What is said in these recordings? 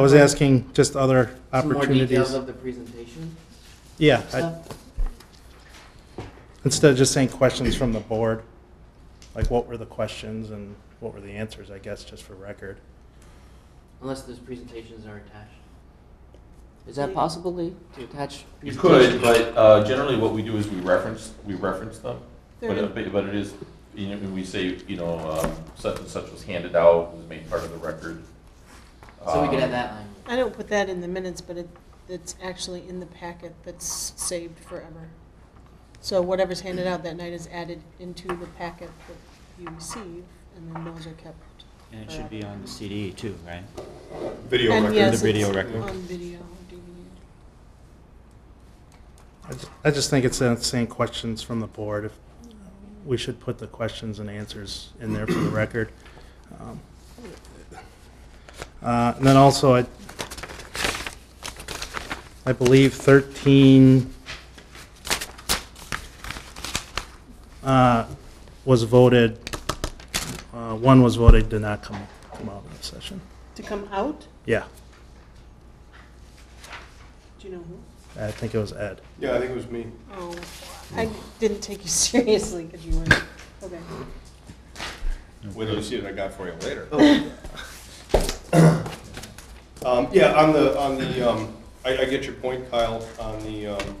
I was asking just other Some more details opportunities. of the presentation Yeah, I- stuff? instead of just saying questions from the board, like what were the questions and what were the answers, I guess, just for record. Unless those presentations are attached. Is that possible, Lee, to attach? You could, presentations? but uh, generally what we do is we reference, we reference them. But, They're- uh, but but it is, you know, when we say, you know, um, such and such was handed out, was made part of the record. So we could Um, add that line. I don't put that in the minutes, but it, it's actually in the packet that's saved forever. So whatever's handed out that night is added into the packet that you receive, and then those are kept. And it should be on the CD too, right? Video And record. yes, The video it's record. On video, DVD. I ju- I just think it's uh, saying questions from the board. If We should put the questions and answers in there for the record. Um, uh, And then also, I I believe 13 uh, was voted, uh, one was voted did not come come out of session. To come out, Yeah, do you know who? I think it was Ed. Yeah, I think it was me. Oh, I didn't take you seriously, because you weren't, okay. Wait till you see what I got for you later. Um, yeah, on the, on the, um, I, I get your point, Kyle, on the, um,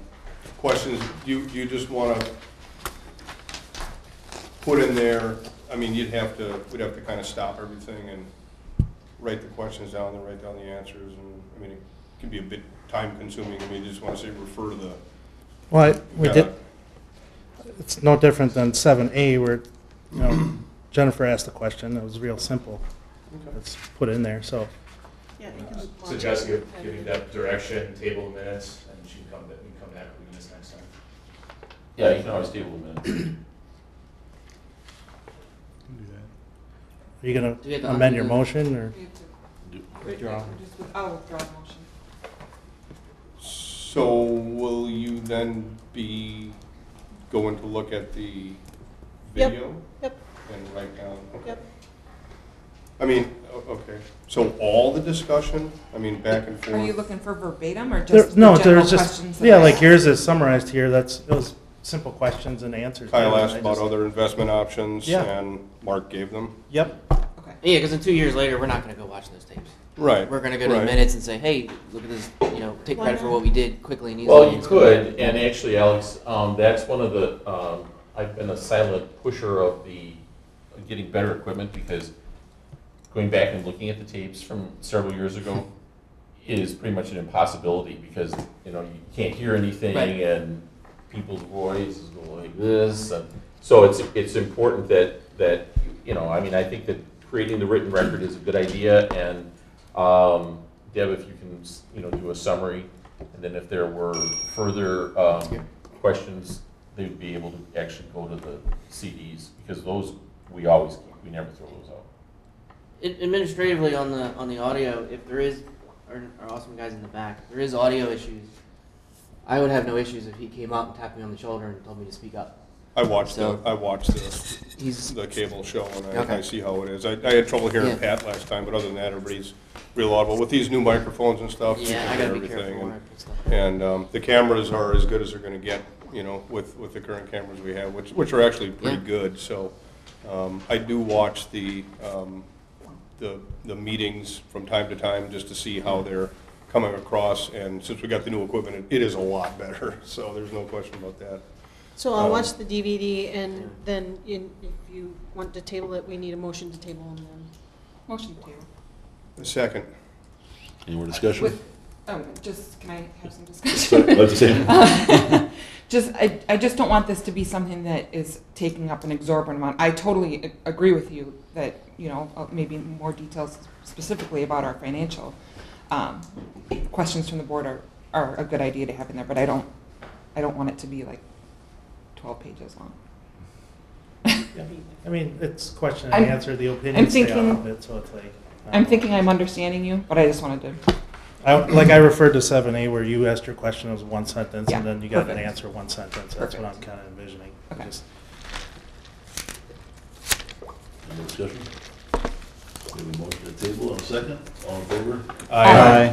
questions. You, you just wanna put in there, I mean, you'd have to, we'd have to kinda stop everything and write the questions down, then write down the answers, and, I mean, it can be a bit time consuming. I mean, you just wanna say refer to the. Well, I- we did, uh, It's no different than seven A where, you know, Jennifer asked the question, it was real simple. It's put in there, so, Yeah, you can- suggest gi- giving that direction, table the minutes, and she can come, ba- we can come back with this next time. Yeah, you can always table them in. are you gonna Do we have to amend your undo the- motion or? So will you then be going to look at the Yep. video? Yep. And write down? okay. Yep. I mean, o- okay, so all the discussion, I mean, back and forth? Are you looking for verbatim or There- just No, the there's general just, questions? that yeah, I- like yours is summarized here, that's, it was simple questions and answers. Kyle I asked about just- other investment options Yeah. and Mark gave them? Yep, Okay. Yeah, because in two years later, we're not gonna go watch those tapes. Right. We're gonna go to the right. minutes and say, hey, look at this, you know, take Why credit for not? what we did quickly and easily. Well, you It's- could, and actually, Alex, um, that's one of the, um, I've been a silent pusher of the, of getting better equipment, because going back and looking at the tapes from several years ago is pretty much an impossibility, because, you know, you can't hear anything, Right. and people's voices go like this, and, so it's, it's important that, that, you know, I mean, I think that creating the written record is a good idea, and, um, Deb, if you can, you know, do a summary, and then if there were further um, questions, they'd be able to actually go to the CDs, because those, we always, keep. we never throw those out. Ad- Administratively on the, on the audio, if there is, our, our awesome guys in the back, if there is audio issues, I would have no issues if he came up and tapped me on the shoulder and told me to speak up. I watched the, So- I watched the, He's, the cable show and Okay. I, I see how it is. I, I had trouble Yeah. hearing Pat last time, but other than that, everybody's real audible. With these new microphones and stuff, you yeah, I can hear gotta be everything. careful and- when I put stuff. And um, the cameras are as good as they're going to get, you know, with, with the current cameras we have, which, which are actually pretty Yeah. good. So um, I do watch the, um, the, the meetings from time to time just to see how they're coming across. And since we got the new equipment, it- it is a lot better, so there's no question about that. So I'll Um, watch the DVD, and then in, if you want to table it, we need a motion to table, and then Motion to. The Second, Any more discussion? With, oh, just, can I have some Sorry, discussion? Let's see. Just, I, I just don't want this to be something that is taking up an exorbitant amount. I totally a- agree with you that, you know, uh, maybe more details specifically about our financial, um, questions from the board are, are a good idea to have in there, but I don't, I don't want it to be like twelve pages long. I mean, it's question and I'm- answer, the opinions stay out thinking- of it, so it's like. I I'm don't- thinking I'm understanding you, but I just wanted to I, like I referred to seven A where you asked your question, it was one sentence, Yeah, and then you got an perfect. answer, one sentence, that's what I'm Perfect. kinda envisioning. Okay. Just- Any more discussion? We have a motion to table, and a second, all in favor? Aye.